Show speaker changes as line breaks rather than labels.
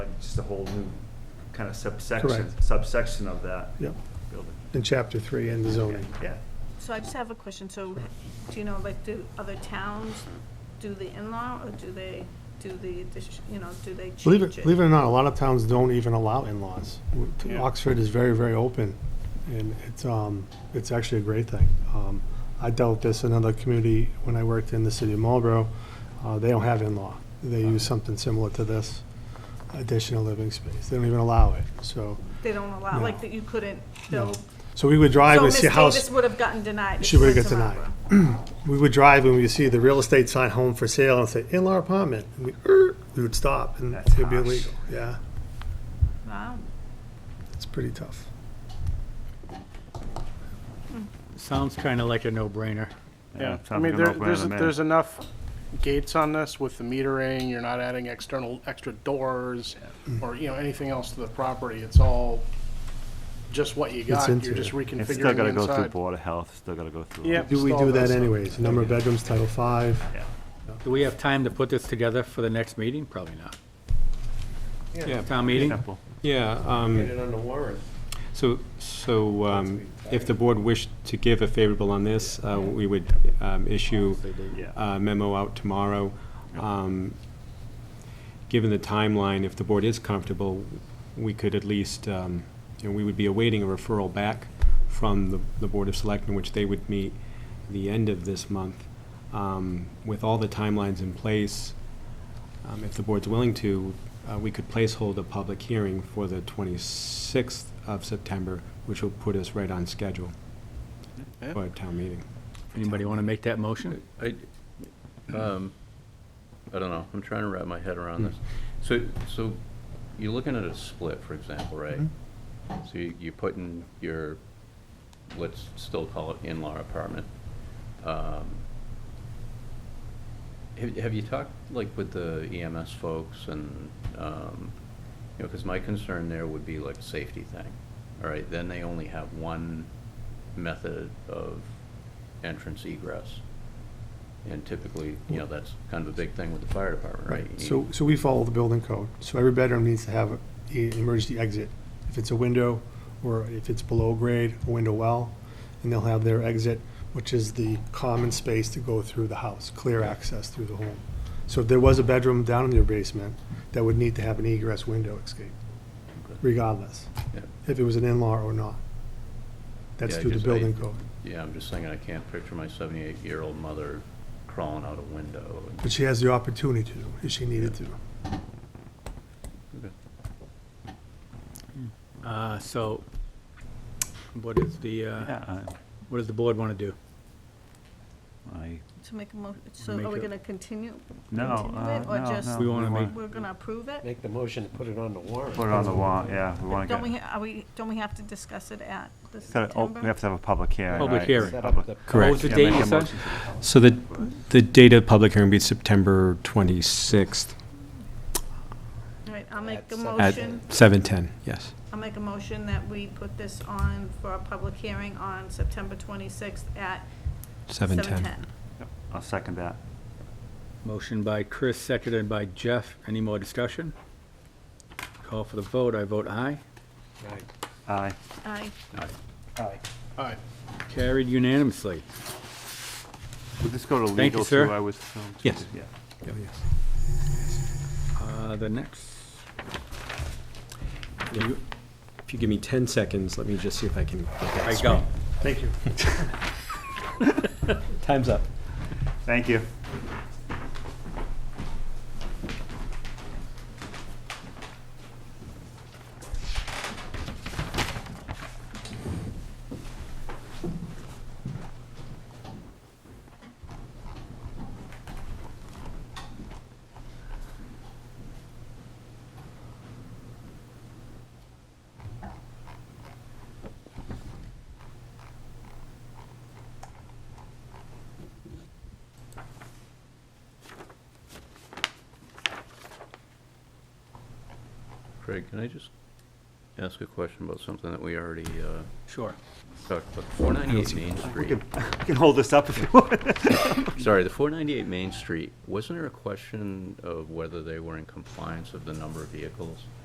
a whole new kind of subsection,
Correct.
subsection of that
Yep,
building.
in chapter three in the zoning.
Yeah,
So I just have a question, so do you know, like, do other towns do the in-law, or do they do the, addition- you know, do they change it?
Believe it, believe it or not, a lot of towns don't even allow in-laws.
Yeah.
Oxford is very, very open, and it's, um, it's actually a great thing. Um, I dealt with this in another community when I worked in the city of Marlboro. Uh, they don't have in-law. They use something similar to this additional living space. They don't even allow it, so.
They don't allow, like,
No.
that you couldn't
no.
build?
So we would drive
So
and
Miss
see a house.
Davis would have gotten denied. if
She would've
went
got
to
denied.
Marlboro.
we would drive and we would see the real estate sign home for sale and say in-law apartment. And we, er, we would stop and
That's
it'd be
harsh.
illegal. Yeah,
Wow,
it's pretty tough.
Sounds kind of like a no-brainer.
yeah.
Yeah, I
sounds
mean,
like a
there,
no-brainer
there's,
to me.
there's enough gates on this with the metering, you're not adding external, extra doors, or, you know, anything else to the property, it's all just what you got,
into
you're just reconfiguring
It's
the
still
inside.
gotta go through Board of Health, still gotta go through.
Yep.
Do we
Stall
do that
this.
anyways? Number of bedrooms, Title Five.
Yeah.
Do we have time to put this together for the next meeting? Probably not.
Yeah,
Town meeting?
Simple.
yeah, um,
on the warrant.
so, so um, if the board wished to give a favorable on this, uh, we would um, issue
Yeah.
a uh, memo out tomorrow. Um, Given the timeline, if the board is comfortable, we could at least, um, you know, we would be awaiting a referral back from the, the Board of Selectmen, which they would meet the end of this month. Um, With all the timelines in place, Um, If the board's willing to, uh, we could placehold a public hearing for the 26th of September, which will put us right on schedule
Yeah.
for a town meeting.
Anybody want to make that motion?
I, um, I don't know, I'm trying to wrap my head around this. So, so you're looking at a split, for example, right? So you- you're putting your, let's still call it in-law apartment. Um, Have, have you talked, like, with the EMS folks and, um, you know, because my concern there would be like a safety thing, all right? Then they only have one method of entrance egress. And typically, you know, that's kind of a big thing with the fire department, right? You
So, so we follow the building code. So every bedroom needs to have an emergency exit. If it's a window, or if it's below grade, a window well, and they'll have their exit, which is the common space to go through the house, clear access through the home. So if there was a bedroom down in your basement, that would need to have an egress window escape, regardless,
Yeah.
if it was an in-law or not. That's
Yeah, I
through the
just- I-
building code.
Yeah, I'm just thinking, I can't picture my seventy-eight-year-old mother crawling out a window. and-
But she has the opportunity to, if she needed to.
Uh, So what is the, uh,
Yeah,
what does the board want to do?
I, I,
to make a mo, so
Make
are we
a-
gonna continue?
no,
Continue
uh,
it or
no,
just-
no.
We wanna make-
We're gonna approve it?
Make the motion to put it on the warrant.
Put it on the warrant, yeah, we wanna
Don't we,
get,
ha- are we, don't we have to discuss it at the
gotta- oh, we
September?
have to have a public hearing,
Public
right?
hearing.
Set
Public-
up the.
What was
Correct.
the
Yeah,
date
make
you
a
said?
motion.
So the, the date of public hearing would be September 26th
All right, I'll make
At
a
seven.
at
motion.
7:10, yes.
I'll make a motion that we put this on for a public hearing on September 26th at
7:10.
7:10.
I'll second that.
Motion by Chris, seconded by Jeff. Any more discussion? Call for the vote. I vote aye.
Right.
Aye.
Aye.
All right,
Carried unanimously.
We'll just go to
Thank you,
legal
sir.
too, I was.
Yes.
Yeah.
Uh, The next,
You- If you give me 10 seconds, let me just see if I can. get that
I
straight.
go.
Thank you.
Time's up.
Thank you.
Craig, can I just ask a question about something that we already uh,
Sure.
talked about? 498 Main
We can,
Street.
we can hold this up if you want.
Sorry, the 498 Main Street, wasn't there a question of whether they were in compliance of the number of vehicles?